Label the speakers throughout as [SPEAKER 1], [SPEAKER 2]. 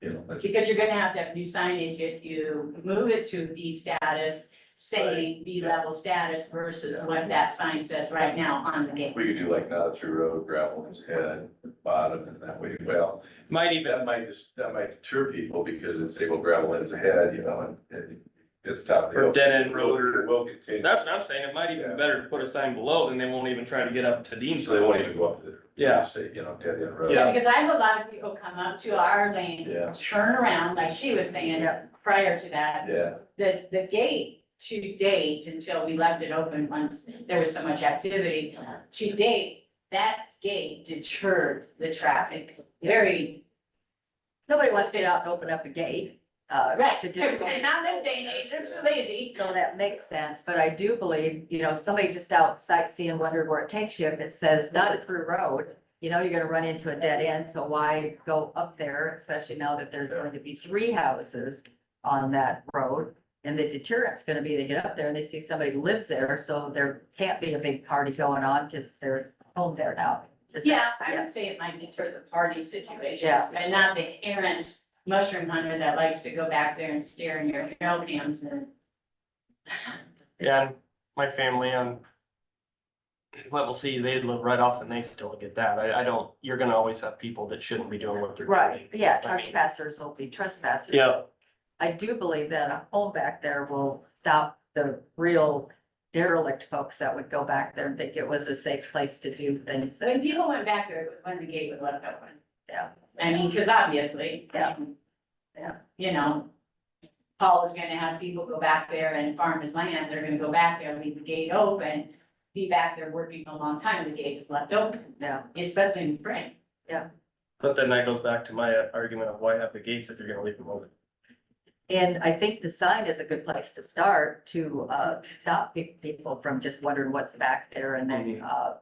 [SPEAKER 1] you know, that's,
[SPEAKER 2] Because you're gonna have to have new signage if you move it to B status, say B level status versus
[SPEAKER 1] Yeah.
[SPEAKER 2] what that sign says right now on the gate.
[SPEAKER 1] we could do like not through road, gravel is head, bottom, and that way, well,
[SPEAKER 3] Might even,
[SPEAKER 1] that might just, that might deter people because it's able gravel ends ahead, you know, and, and it's top. of the
[SPEAKER 3] or
[SPEAKER 1] hill.
[SPEAKER 3] dead end road,
[SPEAKER 1] Will- Will continue,
[SPEAKER 3] that's what I'm saying, it might even be better to put a sign below, then they won't even try to get up to Dean's.
[SPEAKER 1] so they won't even go up to the.
[SPEAKER 3] Yeah.
[SPEAKER 1] Say, you know, dead end road.
[SPEAKER 3] Yeah.
[SPEAKER 2] Because I have a lot of people come up to our lane,
[SPEAKER 1] Yeah,
[SPEAKER 2] turn around, like she was saying prior to that,
[SPEAKER 1] yeah,
[SPEAKER 2] the, the gate to date, until we left it open once there was so much activity, to date, that gate deterred the traffic very,
[SPEAKER 4] Nobody wants to get out and open up a gate. uh,
[SPEAKER 2] right,
[SPEAKER 4] To do.
[SPEAKER 2] not this day and age, they're too lazy.
[SPEAKER 4] So that makes sense, but I do believe, you know, somebody just out sightseeing wondered where it takes you. If it says not a through road, you know, you're gonna run into a dead end, so why go up there? Especially now that there's going to be three houses on that road. And the deterrent's gonna be they get up there and they see somebody lives there, so there can't be a big party going on because there's home there now. Is that-
[SPEAKER 2] Yeah, I would say it might deter the party situations,
[SPEAKER 4] Yeah.
[SPEAKER 2] but not the errant mushroom hunter that likes to go back there and stare in your trail cams and.
[SPEAKER 3] Yeah, and my family on level C, they live right off and they still get that. I, I don't, you're gonna always have people that shouldn't be doing what they're doing.
[SPEAKER 4] Right, yeah, trespassers will be trespassers.
[SPEAKER 3] Yeah,
[SPEAKER 4] I do believe that a home back there will stop the real derelict folks that would go back there and think it was a safe place to do things.
[SPEAKER 2] So when people went back there, it was when the gate was left open.
[SPEAKER 4] Yeah.
[SPEAKER 2] I mean, cause obviously.
[SPEAKER 4] Yeah.
[SPEAKER 2] um,
[SPEAKER 4] Yeah.
[SPEAKER 2] You know, Paul is gonna have people go back there and farm his land, they're gonna go back there, leave the gate open, be back there working a long time, the gate is left open,
[SPEAKER 4] Yeah,
[SPEAKER 2] especially in spring.
[SPEAKER 3] but then that goes back to my argument of why have the gates if you're gonna leave them open.
[SPEAKER 4] and I think the sign is a good place to start to uh stop pe- people from just wondering what's back there and then uh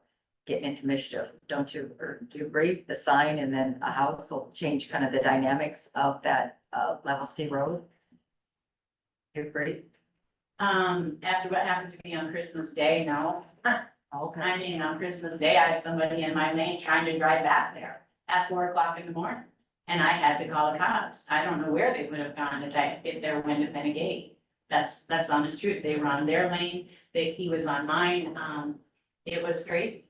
[SPEAKER 4] getting into mischief, don't you, or do you agree? The sign and then a house will change kind of the dynamics of that uh level C road. You agree?
[SPEAKER 2] Um, after what happened to me on Christmas Day, no,
[SPEAKER 4] Okay.
[SPEAKER 2] I mean, on Christmas Day, I had somebody in my lane trying to drive back there at four o'clock in the morning. And I had to call the cops. I don't know where they would have gone if I, if there wouldn't have been a gate. That's, that's honest truth. They were on their lane, they, he was on mine. Um, it was crazy.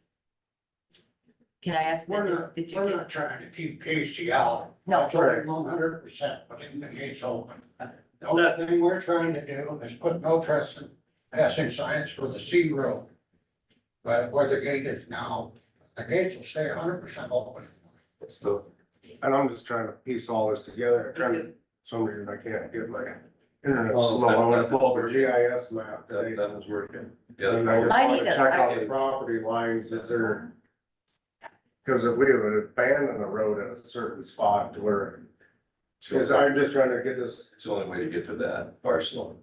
[SPEAKER 4] Can I ask?
[SPEAKER 5] We're
[SPEAKER 4] that-
[SPEAKER 5] not,
[SPEAKER 4] Did you
[SPEAKER 5] we're
[SPEAKER 4] get-
[SPEAKER 5] not trying to keep Casey out.
[SPEAKER 4] No.
[SPEAKER 5] That's one hundred percent, putting the gates open. The only thing we're trying to do is put no trespassing signs for the C road. But where the gate is now, the gates will stay hundred percent open.
[SPEAKER 6] It's the, and I'm just trying to piece all this together, trying to, some reason I can't get my internet
[SPEAKER 1] Oh,
[SPEAKER 6] slow,
[SPEAKER 1] that-
[SPEAKER 6] I went
[SPEAKER 1] that's
[SPEAKER 6] to pull up a
[SPEAKER 1] working.
[SPEAKER 6] GIS map
[SPEAKER 1] That,
[SPEAKER 6] today.
[SPEAKER 1] nothing's working. Yeah,
[SPEAKER 6] And I
[SPEAKER 1] that's-
[SPEAKER 6] just
[SPEAKER 4] I
[SPEAKER 6] wanna
[SPEAKER 4] need a-
[SPEAKER 6] check
[SPEAKER 4] I-
[SPEAKER 6] out the property lines, is there? Cause if we would abandon a road at a certain spot to where, cause I'm just trying to get this,
[SPEAKER 1] It's the only way to get to that parcel.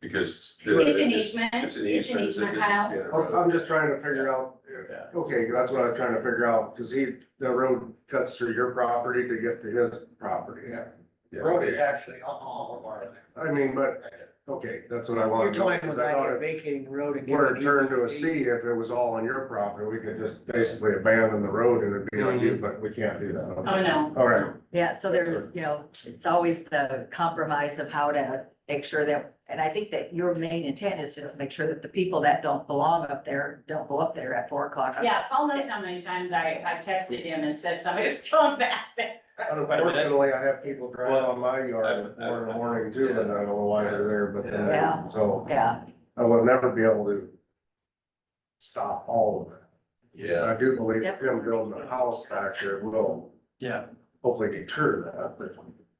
[SPEAKER 1] Because.
[SPEAKER 2] It's an easement.
[SPEAKER 1] It's an easement.
[SPEAKER 2] It's an easement, Kyle.
[SPEAKER 6] I'm I'm just trying to figure out,
[SPEAKER 1] Yeah.
[SPEAKER 6] okay, that's what I was trying to figure out, cause he, the road cuts through your property to get to his property.
[SPEAKER 5] Yeah,
[SPEAKER 1] Yeah.
[SPEAKER 5] road is actually on all of our land.
[SPEAKER 6] I mean, but, okay, that's what I
[SPEAKER 7] You're
[SPEAKER 6] wanted. to know,
[SPEAKER 7] talking
[SPEAKER 6] 'cause I thought
[SPEAKER 7] about
[SPEAKER 6] if-
[SPEAKER 7] vacating the road and.
[SPEAKER 6] Where it
[SPEAKER 7] giving
[SPEAKER 6] turned to a
[SPEAKER 7] easement
[SPEAKER 6] C, if it was all on your property, we could just basically abandon the road and it'd be on you, but we can't do that.
[SPEAKER 2] Oh, no.
[SPEAKER 6] All right,
[SPEAKER 4] Yeah, so
[SPEAKER 6] That's
[SPEAKER 4] there's, you know, it's always the compromise of how to make sure that, and I think that your main intent is to make sure that the people that don't belong up there, don't go up there at four o'clock.
[SPEAKER 2] Yeah, Paul knows how many times I, I texted him and said somebody's going back there.
[SPEAKER 6] unfortunately, I have people drive on my yard at four in the morning too, and I don't know why they're there, but
[SPEAKER 4] Yeah.
[SPEAKER 6] then, so
[SPEAKER 4] Yeah,
[SPEAKER 6] I will never be able to stop all of it. And
[SPEAKER 1] Yeah,
[SPEAKER 6] I do believe him building a house back there will
[SPEAKER 3] Yeah,
[SPEAKER 6] hopefully deter that, but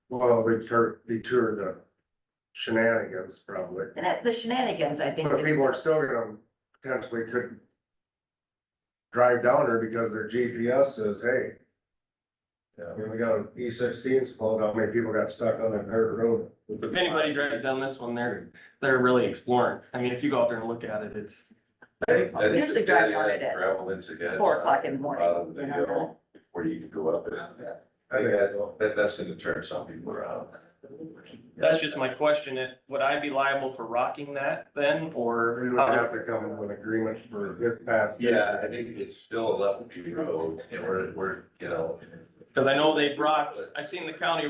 [SPEAKER 6] well, deter, deter the shenanigans probably.
[SPEAKER 4] and that- the shenanigans, I think.
[SPEAKER 6] But
[SPEAKER 4] is-
[SPEAKER 6] people are still gonna potentially could drive down there because their GPS says, hey. I mean, we got an E sixteen split, how many people got stuck on that dirt road?
[SPEAKER 3] if anybody drives down this one, they're, they're really exploring. I mean, if you go out there and look at it, it's,
[SPEAKER 1] I think- I think
[SPEAKER 4] Usually
[SPEAKER 1] the
[SPEAKER 4] drives
[SPEAKER 1] dead
[SPEAKER 4] on
[SPEAKER 1] end
[SPEAKER 4] it at
[SPEAKER 1] Gravel ends again.
[SPEAKER 4] Four o'clock in the
[SPEAKER 1] Bottom of
[SPEAKER 4] morning.
[SPEAKER 1] the
[SPEAKER 4] you know?
[SPEAKER 1] hill, where you can go up it. I think that, that, that's gonna turn some people around.
[SPEAKER 3] that's just my question. It- Would I be liable for rocking that then, or?
[SPEAKER 6] We would have to come to an agreement for this path.
[SPEAKER 1] Yeah, I think it's still a left road, and we're, we're, you know,
[SPEAKER 3] Cause I know they've rocked, I've seen the county